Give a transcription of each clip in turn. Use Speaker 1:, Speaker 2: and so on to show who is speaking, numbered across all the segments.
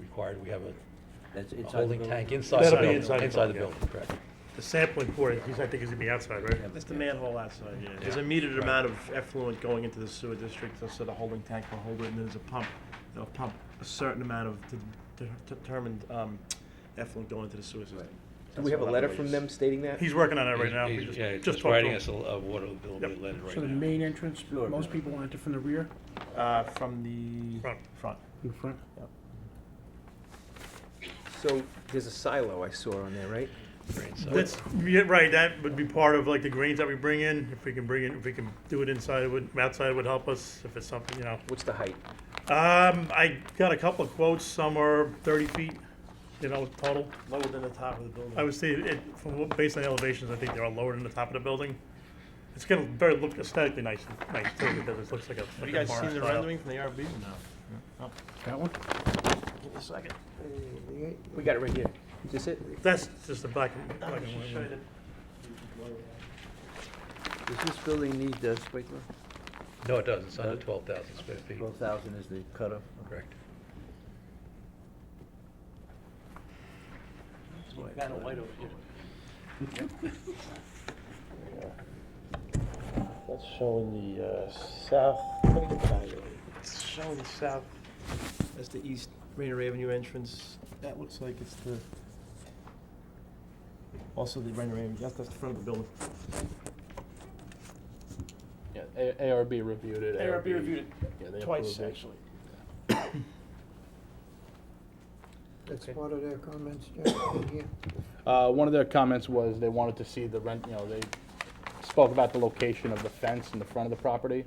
Speaker 1: required, we have a
Speaker 2: That's
Speaker 1: a
Speaker 2: inside the
Speaker 1: holding
Speaker 2: building.
Speaker 1: tank inside,
Speaker 3: That'll
Speaker 1: the
Speaker 3: be
Speaker 1: building,
Speaker 3: inside the
Speaker 1: inside the
Speaker 3: building,
Speaker 1: building, correct.
Speaker 3: The sampling port, I think is gonna be outside, right?
Speaker 2: Yeah.
Speaker 4: It's the manhole outside, yeah. There's a
Speaker 1: Yeah.
Speaker 4: metered amount of effluent going into the sewer district, so the holding tank will hold it, and there's a pump, they'll pump a certain amount of de- de- determined um, effluent going into the sewer system.
Speaker 2: Right.
Speaker 5: Do we have a letter
Speaker 4: That's
Speaker 5: from
Speaker 4: what I
Speaker 5: them stating that?
Speaker 3: He's working on that right now.
Speaker 1: He's-
Speaker 3: We
Speaker 1: he's-
Speaker 3: just-
Speaker 1: Yeah,
Speaker 3: just
Speaker 1: just
Speaker 3: talked to
Speaker 1: writing
Speaker 3: him.
Speaker 1: us a a water bill,
Speaker 3: Yep.
Speaker 1: we let it right
Speaker 6: So the
Speaker 1: now.
Speaker 6: main entrance,
Speaker 2: Sure.
Speaker 6: most people enter from the rear,
Speaker 4: use. Uh, From the.
Speaker 3: Front.
Speaker 4: Front.
Speaker 6: in the front.
Speaker 5: So there's a silo I saw on there, right?
Speaker 1: Right, so-
Speaker 3: That's, yeah, right, that would be part of like the grains that we bring in, if we can bring in, if we can do it inside, it would, outside would help us, if it's something, you know.
Speaker 5: What's the height?
Speaker 3: Um, I got a couple of quotes, some are thirty feet, you know, total.
Speaker 4: Lower than the top of the building.
Speaker 3: I would say it, from what, based on the elevations, I think they're all lower than the top of the building. It's gonna very look aesthetically nice, nice too, because it looks like a.
Speaker 4: Have
Speaker 3: like
Speaker 4: you
Speaker 3: a
Speaker 4: guys
Speaker 3: barn
Speaker 4: seen the
Speaker 3: style.
Speaker 4: rendering from the ARB? No. Oh,
Speaker 6: That one?
Speaker 4: Give me a second.
Speaker 5: We got it right here. Is this it?
Speaker 3: That's just the black and,
Speaker 4: I'll
Speaker 3: black and
Speaker 4: just show you
Speaker 3: white.
Speaker 4: the-
Speaker 2: Does this building need a sprinkler?
Speaker 1: No, it doesn't, it's under twelve thousand square feet,
Speaker 2: Twelve thousand is the cutoff.
Speaker 1: correct.
Speaker 2: Kind of white over here.
Speaker 4: That's showing the uh, south, let me get that out of the way. It's showing the south, that's the east Rainier Avenue entrance. That looks like it's the, also the Rainier Avenue, that's, that's the front of the building.
Speaker 7: Yeah, A- ARB reviewed it.
Speaker 4: ARB reviewed
Speaker 7: Yeah, they
Speaker 4: it twice,
Speaker 7: approved it.
Speaker 4: actually.
Speaker 8: That's
Speaker 4: Okay.
Speaker 8: part of their comments, Jack, right here.
Speaker 7: Uh, one of their comments was they wanted to see the rent, you know, they spoke about the location of the fence in the front of the property.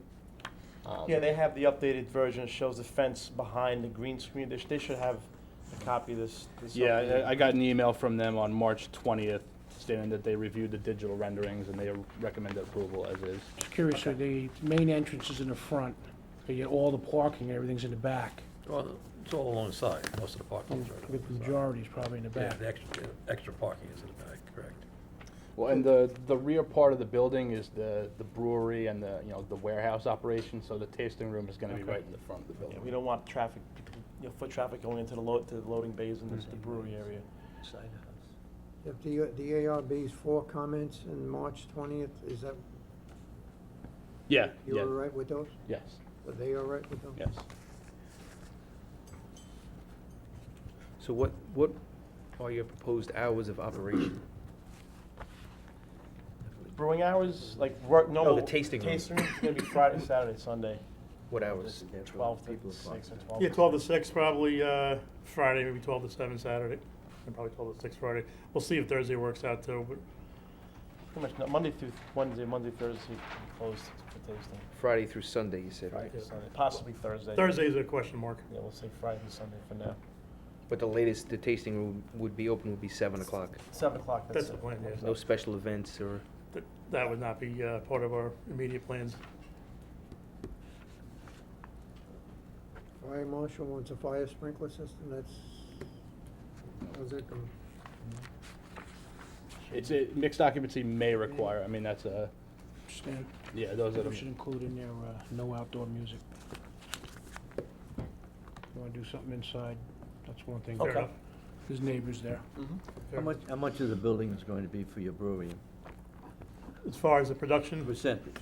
Speaker 7: Um,
Speaker 4: Yeah, they have the updated version, it shows the fence behind the green screen, they, sh- they should have a copy of this. this
Speaker 7: Yeah,
Speaker 4: updated.
Speaker 7: I- I got an email from them on March twentieth stating that they reviewed the digital renderings and they recommended approval as is.
Speaker 6: Just curious, so the main entrance is in the front, but yet all the parking, everything's in the back.
Speaker 1: Well, it's all alongside, most of the parking is right
Speaker 6: The
Speaker 1: alongside.
Speaker 6: majority is probably in the
Speaker 1: Yeah,
Speaker 6: back.
Speaker 1: the extra, the extra parking is in the back, correct.
Speaker 7: Well, and the, the rear part of the building is the, the brewery and the, you know, the warehouse operation, so the tasting room is gonna be right in the front of the
Speaker 4: Yeah,
Speaker 7: building.
Speaker 4: We don't want traffic, you know, foot traffic going into the load, to the loading bays and the brewery area.
Speaker 2: Side house.
Speaker 8: If the, the ARB's four comments in March twentieth, is that,
Speaker 7: Yeah,
Speaker 8: you
Speaker 7: yeah,
Speaker 8: all right with those?
Speaker 7: yes,
Speaker 8: Are they all right with those?
Speaker 7: yes.
Speaker 5: So what, what are your proposed hours of operation?
Speaker 4: Brewing hours, like work, normal.
Speaker 5: the tasting room.
Speaker 4: Tasting room's gonna be Friday, Saturday, Sunday,
Speaker 5: What hours?
Speaker 4: twelve to
Speaker 2: People
Speaker 4: six or
Speaker 2: apart.
Speaker 4: twelve.
Speaker 3: Yeah, twelve to six probably, uh, Friday, maybe twelve to seven Saturday, and probably twelve to six Friday. We'll see if Thursday works out too, but
Speaker 4: Pretty much, no- Monday through Wednesday, Monday, Thursday, closed for tasting.
Speaker 5: Friday through Sunday, you said,
Speaker 4: Friday,
Speaker 5: right?
Speaker 4: to Sunday, possibly Thursday.
Speaker 3: Thursday's a question mark.
Speaker 4: Yeah, we'll say Friday and Sunday for now.
Speaker 5: But the latest the tasting room would be open would be seven o'clock.
Speaker 4: Seven o'clock, that's
Speaker 3: That's
Speaker 4: it.
Speaker 3: the plan, yeah.
Speaker 5: No special events or,
Speaker 3: That, that would not be, uh, part of our immediate plans.
Speaker 8: Fire marshal wants a fire sprinkler system, that's, how's that going?
Speaker 7: It's, a mixed occupancy may require, I mean, that's a,
Speaker 6: Understand?
Speaker 7: yeah, those are the.
Speaker 6: We should include in there, uh, no outdoor music. You wanna do something inside, that's one thing.
Speaker 3: Fair enough.
Speaker 6: There's neighbors there.
Speaker 3: Fair.
Speaker 2: How much, how much of the building is going to be for your brewery?
Speaker 3: As far as the production,
Speaker 2: Percentage?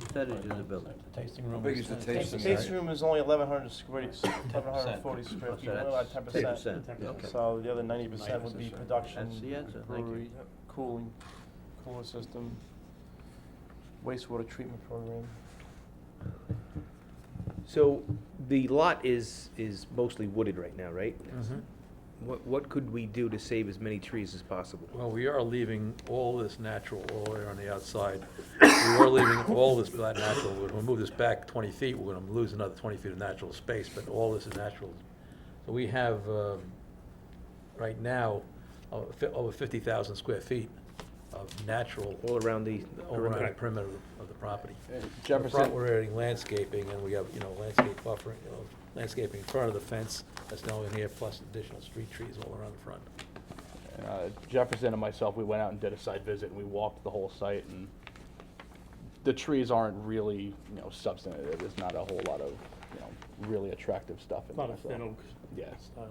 Speaker 2: Percentage of the building?
Speaker 1: The tasting room.
Speaker 9: big is the
Speaker 4: The
Speaker 9: tasting
Speaker 4: tasting room is only eleven hundred square, eleven hundred forty
Speaker 2: Oh,
Speaker 4: square feet,
Speaker 2: So
Speaker 4: only
Speaker 2: that's
Speaker 4: about ten
Speaker 2: ten
Speaker 4: percent.
Speaker 2: percent, okay.
Speaker 4: So the other ninety percent would be
Speaker 2: 90%. That's the
Speaker 4: production,
Speaker 2: answer, thank you.
Speaker 4: brewery, cooling, cooler system, wastewater treatment program.
Speaker 5: so the lot is, is mostly wooded right now, right?
Speaker 1: Mm-hmm.
Speaker 5: What, what could we do to save as many trees as possible?
Speaker 1: Well, we are leaving all this natural all the way on the outside. We are leaving all this that natural. When we move this back 20 feet, we're going to lose another 20 feet of natural space, but all this is natural. So we have, um, right now, uh, fi- over 50,000 square feet of natural
Speaker 5: All around the
Speaker 1: all around the
Speaker 5: perimeter?
Speaker 1: perimeter of the property.
Speaker 7: Uh,
Speaker 1: In the front,
Speaker 7: Jefferson,
Speaker 1: we're adding landscaping, and we have, you know, landscape buffering, you know, landscaping in front of the fence that's now in here, plus additional street trees all around the front.
Speaker 7: uh, Jefferson and myself, we went out and did a site visit, and we walked the whole site, and the trees aren't really, you know, substantive, there's not a whole lot of, you know, really attractive stuff in
Speaker 3: a lot
Speaker 7: there,
Speaker 3: of
Speaker 7: so.
Speaker 3: thin oaks.
Speaker 7: Yeah.
Speaker 3: style.